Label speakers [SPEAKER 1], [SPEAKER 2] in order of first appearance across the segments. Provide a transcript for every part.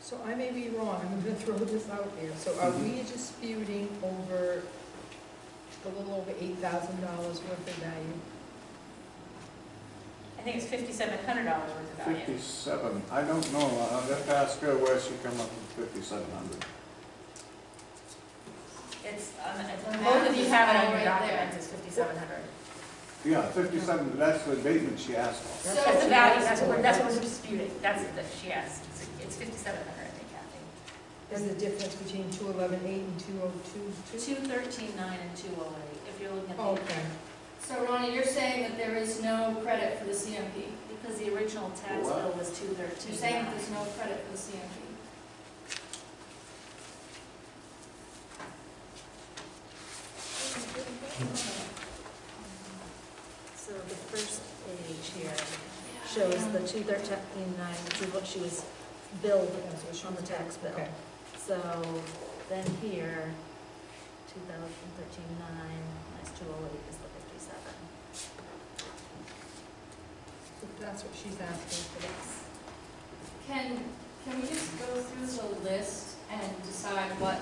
[SPEAKER 1] So I may be wrong, I'm gonna throw this out there. So are we disputing over a little over eight thousand dollars worth of value?
[SPEAKER 2] I think it's fifty-seven hundred dollars worth of value.
[SPEAKER 3] Fifty-seven, I don't know, I'll have to ask her where she come up with fifty-seven hundred.
[SPEAKER 2] It's, on the- it's
[SPEAKER 4] The
[SPEAKER 2] on
[SPEAKER 4] map
[SPEAKER 2] both of you
[SPEAKER 4] is
[SPEAKER 2] have it
[SPEAKER 4] all
[SPEAKER 2] on your
[SPEAKER 4] right there.
[SPEAKER 2] documents, it's fifty-seven hundred.
[SPEAKER 3] Yeah, fifty-seven, that's the abatement she asked for.
[SPEAKER 4] So-
[SPEAKER 2] That's the value, that's what, we're- that's what we're disputing, that's, that she asked, it's fifty-seven hundred, I think, Kathy.
[SPEAKER 1] There's a difference between two eleven eight and two oh two two?
[SPEAKER 2] Two thirteen nine and two oh eight, if you're looking at the,
[SPEAKER 1] Okay,
[SPEAKER 4] So Ronnie, you're saying that there is no credit for the CMP?
[SPEAKER 2] because the original tax
[SPEAKER 3] What?
[SPEAKER 2] bill was two
[SPEAKER 4] You're
[SPEAKER 2] thirteen
[SPEAKER 4] saying
[SPEAKER 2] nine.
[SPEAKER 4] that there's no credit for the CMP?
[SPEAKER 2] So the first page here
[SPEAKER 4] Yeah.
[SPEAKER 2] shows the two thirteen nine, which is what she was billed on the tax bill.
[SPEAKER 1] okay.
[SPEAKER 2] So then here, two thousand thirteen nine, minus two oh eight is the fifty-seven.
[SPEAKER 1] So That's what she's asking for.
[SPEAKER 4] Can, can we just go through the list and decide what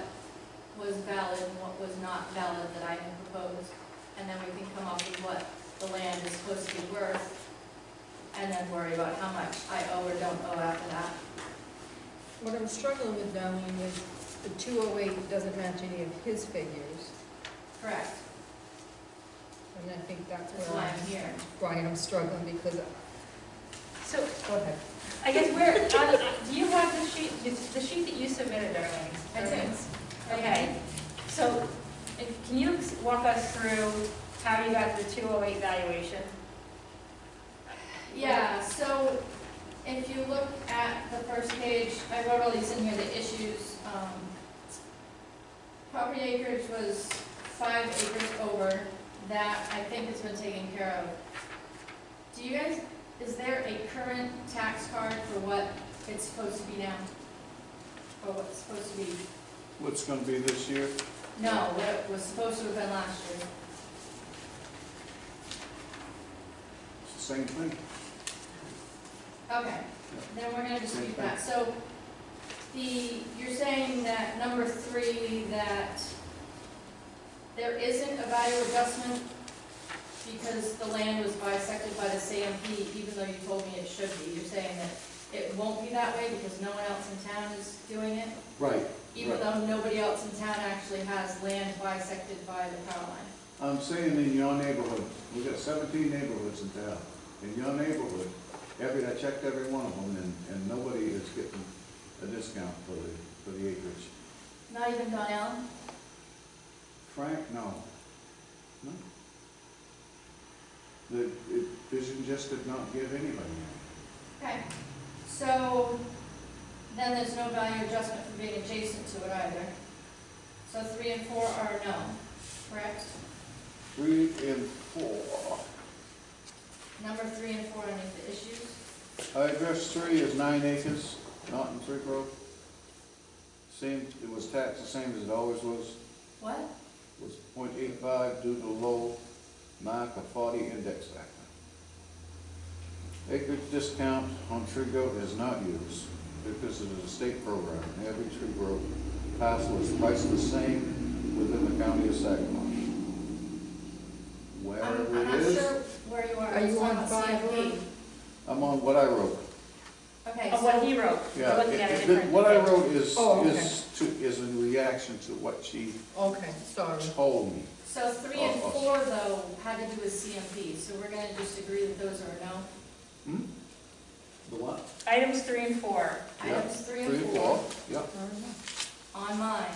[SPEAKER 4] was valid and what was not valid that I had proposed? And then we can come up with what the land is supposed to be worth, and then worry about how much I owe or don't owe after that.
[SPEAKER 1] What I'm struggling with, Darlene, is the two oh eight doesn't match any of his figures,
[SPEAKER 4] Correct,
[SPEAKER 1] and I think that's
[SPEAKER 4] that's
[SPEAKER 1] where
[SPEAKER 4] why
[SPEAKER 1] I'm,
[SPEAKER 4] I'm here.
[SPEAKER 1] why I'm struggling, because,
[SPEAKER 2] So
[SPEAKER 1] go ahead.
[SPEAKER 2] I guess where, on- do you have the sheet, the sheet that you submitted, Darlene?
[SPEAKER 4] I did.
[SPEAKER 2] Okay, so if- can you walk us through how you got the two oh eight valuation?
[SPEAKER 4] Yeah, so if you look at the first page, I wrote all these in here, the issues. um, Property acreage was five acres over, that I think has been taken care of. Do you guys, is there a current tax card for what it's supposed to be now? Or what's supposed to be,
[SPEAKER 3] What's gonna be this year?
[SPEAKER 4] no, what it was supposed to have been last year?
[SPEAKER 3] It's the same thing.
[SPEAKER 4] Okay, then we're gonna dispute that. So, the, you're saying that number three, that there isn't a value adjustment because the land was bisected by the CMP, even though you told me it should be. You're saying that it won't be that way because no one else in town is doing it,
[SPEAKER 3] Right,
[SPEAKER 4] even though nobody else in town actually has land bisected by the power line.
[SPEAKER 3] I'm saying in your neighborhood, we got seventeen neighborhoods in town. In your neighborhood, every, I checked every one of them, and, and nobody is getting a discount for the, for the acreage.
[SPEAKER 4] Not even Don Allen?
[SPEAKER 3] Frank, no. No? The, it, Vision just did not give anybody any.
[SPEAKER 4] Okay, so then there's no value adjustment for being adjacent to it either. So three and four are no, correct?
[SPEAKER 3] Three and four.
[SPEAKER 4] Number three and four underneath the issues.
[SPEAKER 3] Uh, Address three is nine acres, not in Creek Road. Same, it was taxed the same as it always was,
[SPEAKER 4] What?
[SPEAKER 3] was point eight five due to low mark of forty index factor. Acreage discount on tree goat is not used because it is a state program. Every tree growth parcel is priced the same within the county of Saginaw.
[SPEAKER 4] I'm,
[SPEAKER 3] Where
[SPEAKER 4] I'm
[SPEAKER 3] it
[SPEAKER 4] not
[SPEAKER 3] is,
[SPEAKER 4] sure where you are.
[SPEAKER 1] Are you
[SPEAKER 4] It's
[SPEAKER 1] on
[SPEAKER 4] the
[SPEAKER 1] five
[SPEAKER 4] CMP.
[SPEAKER 1] or-
[SPEAKER 3] I'm on what I wrote.
[SPEAKER 4] Okay,
[SPEAKER 2] Of Oh, what
[SPEAKER 4] so,
[SPEAKER 2] he wrote? We're
[SPEAKER 3] Yeah,
[SPEAKER 2] looking
[SPEAKER 3] it-
[SPEAKER 2] at a
[SPEAKER 3] it-
[SPEAKER 2] different-
[SPEAKER 3] what I wrote is,
[SPEAKER 1] Oh, okay.
[SPEAKER 3] is to, is in reaction to what she
[SPEAKER 1] Okay, sorry.
[SPEAKER 3] told me.
[SPEAKER 4] so three and
[SPEAKER 3] Oh, oh.
[SPEAKER 4] four though had to do with CMP, so we're gonna just agree that those are no.
[SPEAKER 3] Hmm? The what?
[SPEAKER 2] Items three and four.
[SPEAKER 3] Yeah,
[SPEAKER 4] Items three
[SPEAKER 3] Three,
[SPEAKER 4] and four
[SPEAKER 3] yeah.
[SPEAKER 4] on mine,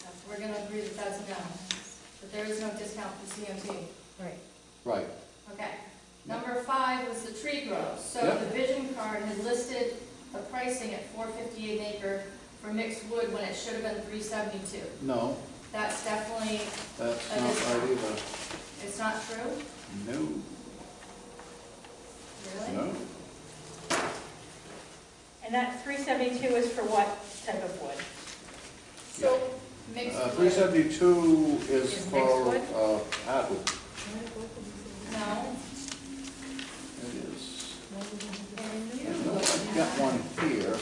[SPEAKER 4] so we're gonna agree that that's a no. But there is no discount for CMP.
[SPEAKER 1] Right.
[SPEAKER 3] Right,
[SPEAKER 4] Okay, number five was the tree growth. So
[SPEAKER 3] Yeah.
[SPEAKER 4] the vision card had listed the pricing at four fifty an acre for mixed wood when it should have been three seventy-two.
[SPEAKER 3] no,
[SPEAKER 4] That's definitely,
[SPEAKER 3] that's
[SPEAKER 4] That
[SPEAKER 3] not
[SPEAKER 4] is-
[SPEAKER 3] right either.
[SPEAKER 4] it's not true,
[SPEAKER 3] No,
[SPEAKER 4] really?
[SPEAKER 3] no,
[SPEAKER 2] And that three seventy-two is for what type of wood?
[SPEAKER 4] So mixed
[SPEAKER 3] uh, three
[SPEAKER 4] wood,
[SPEAKER 3] seventy-two is
[SPEAKER 2] Is
[SPEAKER 3] for,
[SPEAKER 2] next
[SPEAKER 3] uh, hardwood.
[SPEAKER 4] no.
[SPEAKER 3] It is.
[SPEAKER 4] And
[SPEAKER 3] No, I've got one here,